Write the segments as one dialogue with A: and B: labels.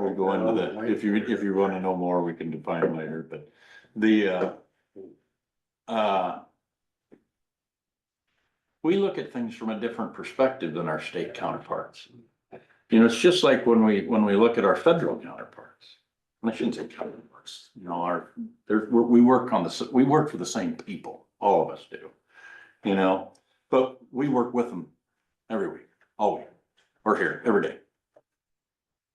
A: can go into that, if you, if you wanna know more, we can define later, but the, uh. Uh. We look at things from a different perspective than our state counterparts. You know, it's just like when we, when we look at our federal counterparts. And I shouldn't say counterparts, you know, our, there, we, we work on the, s- we work for the same people, all of us do. You know, but we work with them every week, all week, or here, every day.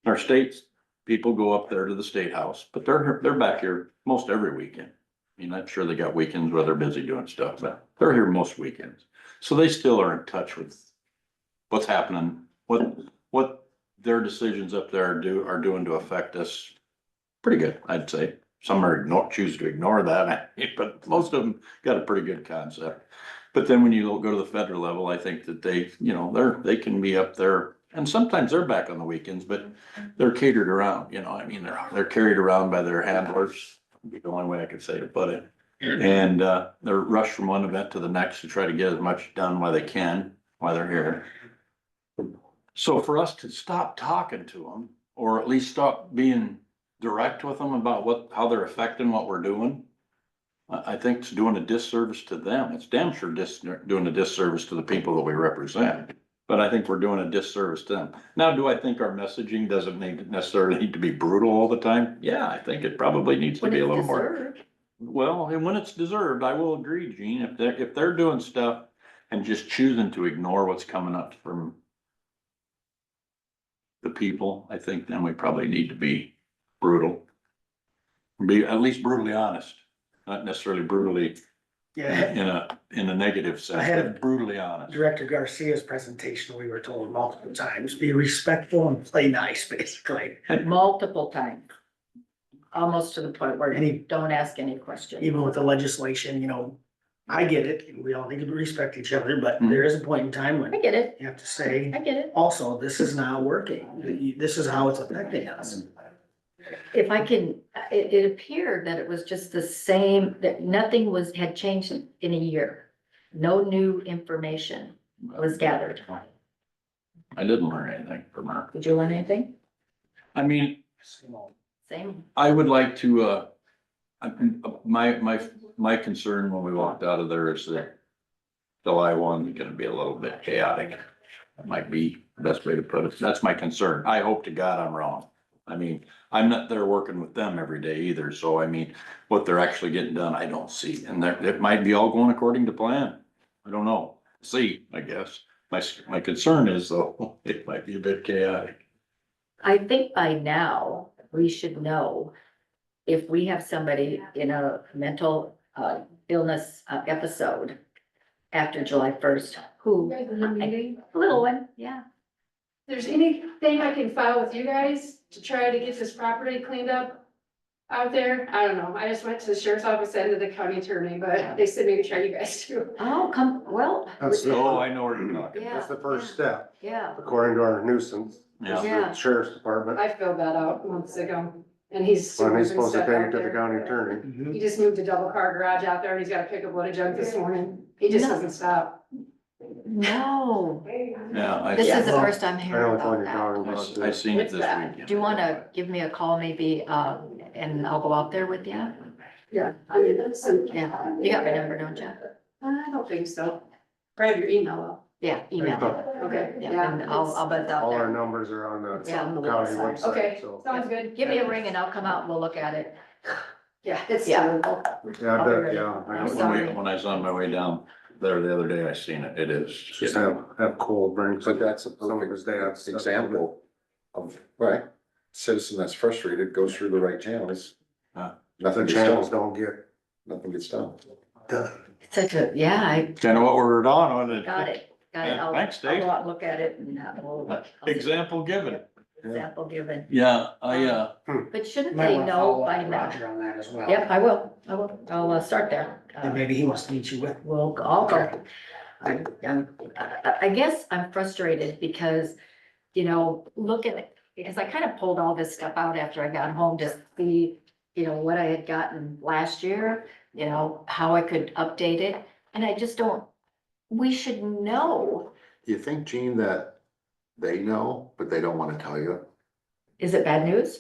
A: Our states, people go up there to the state house, but they're, they're back here most every weekend. I mean, I'm sure they got weekends where they're busy doing stuff, but they're here most weekends. So they still are in touch with what's happening, what, what their decisions up there do, are doing to affect us. Pretty good, I'd say. Some are ignore, choose to ignore that, but most of them got a pretty good concept. But then when you go to the federal level, I think that they, you know, they're, they can be up there and sometimes they're back on the weekends, but they're catered around, you know, I mean, they're, they're carried around by their handlers. would Be the only way I could say to put it. And, uh, they're rushed from one event to the next to try to get as much done while they can, while they're here. So for us to stop talking to them, or at least stop being direct with them about what, how they're affecting what we're doing. I, I think it's doing a disservice to them. It's damn sure dis, doing a disservice to the people that we represent. But I think we're doing a disservice to them. Now, do I think our messaging doesn't need, necessarily need to be brutal all the time? Yeah, I think it probably needs to
B: When
A: be a
B: it's
A: little more.
B: deserved,
A: Well, and when it's deserved, I will agree, Gene, if they're, if they're doing stuff and just choosing to ignore what's coming up from the people, I think then we probably need to be brutal. Be at least brutally honest, not necessarily brutally in
C: Yeah,
A: a, in a negative
C: I
A: sense,
C: had a-
A: but brutally honest.
C: Director Garcia's presentation, we were told multiple times, be respectful and play nice, basically.
B: multiple times. Almost to the point where
C: Any-
B: you don't ask any questions.
C: Even with the legislation, you know, I get it, we all need to respect each other, but
B: Mm-hmm.
C: there is a point in time
B: I
C: when
B: get it,
C: you have to say,
B: I get it.
C: also, this is not working. This is how it's affecting us.
B: If I can, it, it appeared that it was just the same, that nothing was, had changed in a year. No new information was gathered.
A: I didn't learn anything from her.
B: Did you learn anything?
A: I mean,
B: Same.
A: I would like to, uh, I- my, my, my concern when we walked out of there is that July one is gonna be a little bit chaotic. That Might be the best way to put it. That's my concern. I hope to God I'm wrong. I mean, I'm not there working with them every day either, so I mean, what they're actually getting done, I don't see. And that, it might be all going according to plan. I don't know. See, I guess. My, s- my concern is though, it might be a bit chaotic.
B: I think by now, we should know if we have somebody in a mental uh, illness uh, episode after July first, who,
D: Regular meeting.
B: little one, yeah.
D: If there's anything I can file with you guys to try to get this property cleaned up out there, I don't know. I just went to the sheriff's office and to the county attorney, but they said maybe try you guys too.
B: Oh, come, well,
E: That's the-
A: Oh, I know where you're talking.
B: yeah.
E: That's the first step,
B: Yeah,
E: according to our nuisance, is
A: Yeah,
B: Yeah.
E: the sheriff's department,
D: I filled that out months ago and he's.
E: when
D: super
E: he's supposed to
D: upset
E: take
D: out
E: it to the
D: there.
E: county attorney.
D: He just moved a double car garage out there and he's got to pick up a load of junk this morning. He just
B: No.
D: doesn't stop.
B: no,
A: yeah. I-
B: this is the
E: Yeah.
B: first I'm
E: I know
B: hearing
E: which one
B: about
E: you're
B: that.
E: talking
A: I
E: about.
A: s-
E: too.
A: I seen it
D: What's
A: this
D: that?
A: weekend.
B: Do you wanna give me a call maybe, uh, and I'll go out there with you?
D: Yeah, I mean, that's some.
B: Yeah, you got my number, don't you?
D: I don't think so. Grab your email up.
B: Yeah, email,
E: But
D: Okay,
B: yeah, and I'll, I'll buzz out
E: All our
B: there.
E: numbers are on the
B: It's on
D: the
E: county
D: website.
E: website,
D: Okay,
E: so.
D: sounds good.
B: Give me a ring and I'll come out and we'll look at it.
D: Yeah, it's
B: Yeah.
D: terrible.
E: Yeah, I
B: I'll be
E: bet,
B: ready.
E: yeah. I
B: I'm
E: know.
A: When we,
B: sorry.
A: when I was on my way down there the other day, I seen it, it is.
E: Just have, have cold drinks.
F: But that's a
E: Some of his
F: perfect
E: dads.
F: example of, right, citizen that's frustrated goes through the right channels.
A: Huh.
E: The
F: Nothing gets
E: channels
F: done,
E: don't get
F: nothing gets done.
E: done.
B: It's Such a, yeah, I
A: Kind of what we're on, wasn't it?
B: got it, got it.
A: Yeah,
B: I'll,
A: thanks,
B: I'll
A: Dave.
B: go out and look at it and uh, we'll. I'll-
A: Example given.
B: Example given,
A: Yeah, I, uh,
B: but shouldn't
C: Might
B: they
C: wanna
B: know
C: follow up
B: by
C: with
B: now?
C: Roger on that as well.
B: Yep, I will, I will, I'll uh, start there.
C: And
B: Uh,
C: maybe he wants to meet you with.
B: We'll, I'll
C: Okay.
B: go. I, I'm, I, I guess I'm frustrated because, you know, look at it, because I kind of pulled all this stuff out after I got home to see, you know, what I had gotten last year, you know, how I could update it, and I just don't, we should know.
F: You think, Gene, that they know, but they don't wanna tell you?
B: Is it bad news?